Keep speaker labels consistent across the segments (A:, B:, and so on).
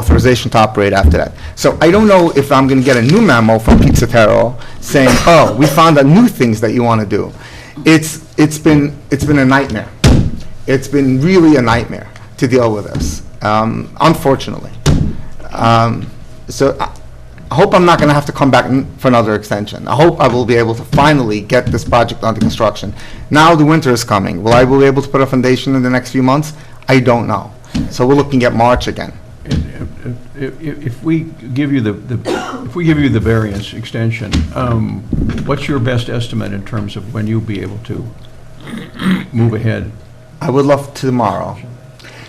A: authorization to operate after that. So I don't know if I'm going to get a new memo from Pizza Terrell saying, oh, we found out new things that you want to do. It's, it's been, it's been a nightmare. It's been really a nightmare to deal with this, um, unfortunately. Um, So I I hope I'm not going to have to come back n- for another extension. I hope I will be able to finally get this project under construction. Now the winter is coming. Will I be able to put a foundation in the next few months? I don't know. So we're looking at March again.
B: If- If if we give you the- the, if we give you the variance extension, um, what's your best estimate in terms of when you'll be able to move ahead?
A: I would love tomorrow.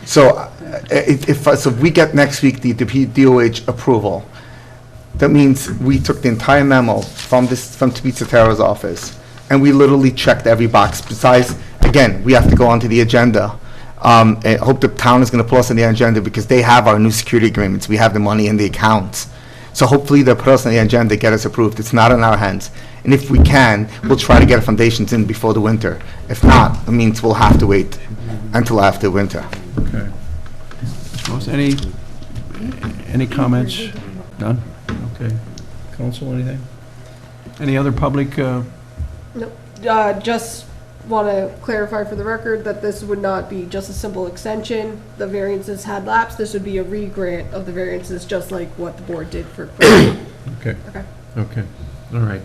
A: So uh, if, if, so if we get next week the DP DOH approval, that means we took the entire memo from this, from Tabitha Terra's office, and we literally checked every box. Besides, again, we have to go onto the agenda. Um, I hope the town is gonna put us on the agenda because they have our new security agreements. We have the money in the accounts. So hopefully they'll put us on the agenda, get us approved. It's not in our hands. And if we can, we'll try to get foundations in before the winter. If not, it means we'll have to wait until after winter.
B: Okay. Ms. Moss, Any, any comments? None? Okay. Council, anything? Any other public, uh,
C: No, uh, just want to clarify for the record that this would not be just a simple extension. The variances had lapsed. This would be a re-grant of the variances, just like what the board did for.
B: okay,
C: Okay.
B: okay, all right.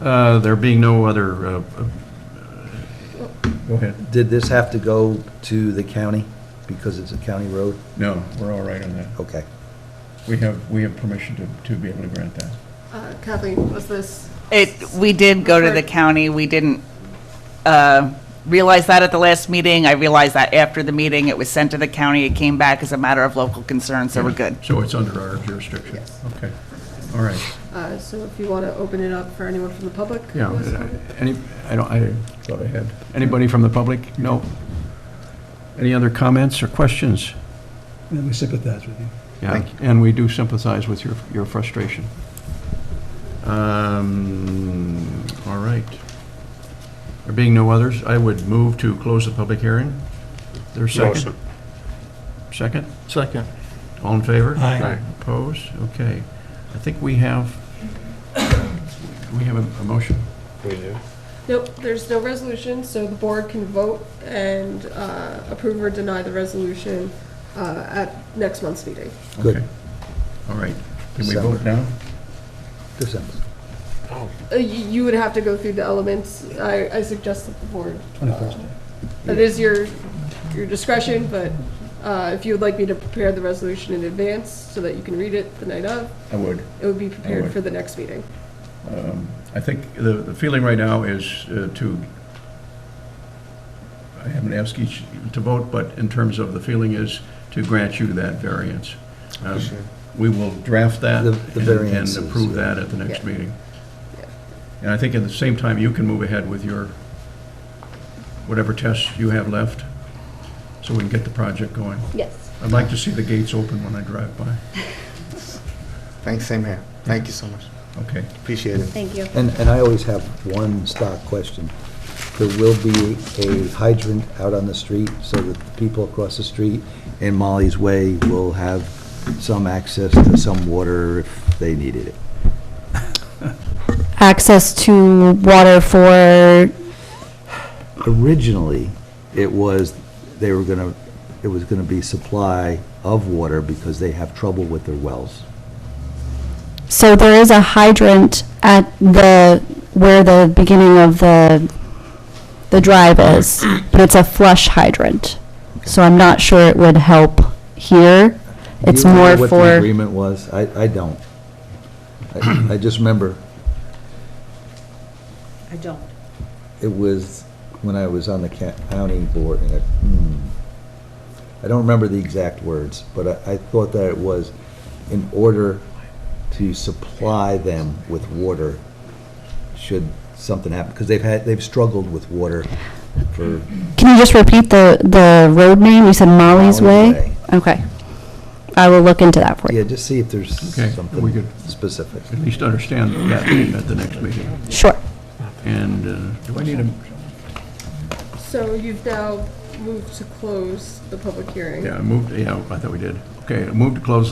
B: Uh, There being no other, uh, uh, go ahead.
D: Did this have to go to the county because it's a county road?
B: No, we're all right on that.
D: Okay.
B: We have, we have permission to, to be able to grant that.
C: Uh, Kathleen, was this,
E: It, we did go to the county, we didn't uh, realize that at the last meeting, I realized that after the meeting, it was sent to the county, it came back as a matter of local concern, so we're good.
B: So it's under our jurisdiction?
C: Yes.
B: Okay, all right,
C: uh, so if you want to open it up for anyone from the public? who
B: yeah.
C: wants to comment?
B: Any, I don't, I thought I had, anybody from the public? No? Any other comments or questions?
F: And we sympathize with you.
B: Yeah,
A: Thank you.
B: And we do sympathize with your, your frustration. Um, all right. There being no others, I would move to close the public hearing. There's second? Second?
G: Second.
B: All in favor?
F: Aye.
G: Aye.
B: Opposed? Okay. I think we have, we have a- a motion.
G: We do.
C: Nope, there's no resolution, so the board can vote and uh, approve or deny the resolution uh, at next month's meeting.
D: Good.
B: Okay. All right. Can we
D: December.
B: vote now?
D: December.
C: Uh, y- You would have to go through the elements. I I suggest that the board uh,
F: Twenty-first.
C: That is your, your discretion, but uh, if you would like me to prepare the resolution in advance so that you can read it the night of,
B: I would.
C: it would be
B: All
C: prepared
B: right.
C: for the next meeting.
B: Um, I think the, the feeling right now is uh, to, I haven't asked each to vote, but in terms of the feeling is to grant you that variance. Um, We will draft that
D: The-
B: and
D: the
B: and
D: variances,
B: approve
D: yeah.
B: that at the next
C: Yeah.
B: meeting. And I think at the same time, you can move ahead with your, whatever tests you have left, so we can get the project going.
C: Yes.
B: I'd like to see the gates open when I drive by.
A: Thanks, same here. Thank you so much.
B: Okay.
A: Appreciate it.
C: Thank you.
D: And, and I always have one stock question. There will be a hydrant out on the street so that the people across the street in Molly's Way will have some access to some water if they needed it.
H: access to water for,
D: Originally, it was, they were gonna, it was gonna be supply of water because they have trouble with their wells.
H: so there is a hydrant at the, where the beginning of the, the drive is, but it's a flush hydrant. So I'm not sure it would help here.
D: Do you
H: It's
D: remember
H: more
D: What the
H: for,
D: agreement was? I, I don't. I I just remember
I: I don't.
D: it was when I was on the ca- county board, and I, hmm. I don't remember the exact words, but I, I thought that it was in order to supply them with water should something happen, because they've had, they've struggled with water for
H: can you just repeat the, the road name? You said Molly's
D: Molly's
H: Way? Okay. I will look into that for
D: Yeah,
H: you.
D: just see if there's
B: Okay, we
D: something
B: could-
D: specific.
B: At least understand that at the next meeting.
H: Sure.
B: And uh, do I need a,
C: So you've now moved to close the public hearing.
B: yeah, I moved, yeah, I thought we did. Okay, move to close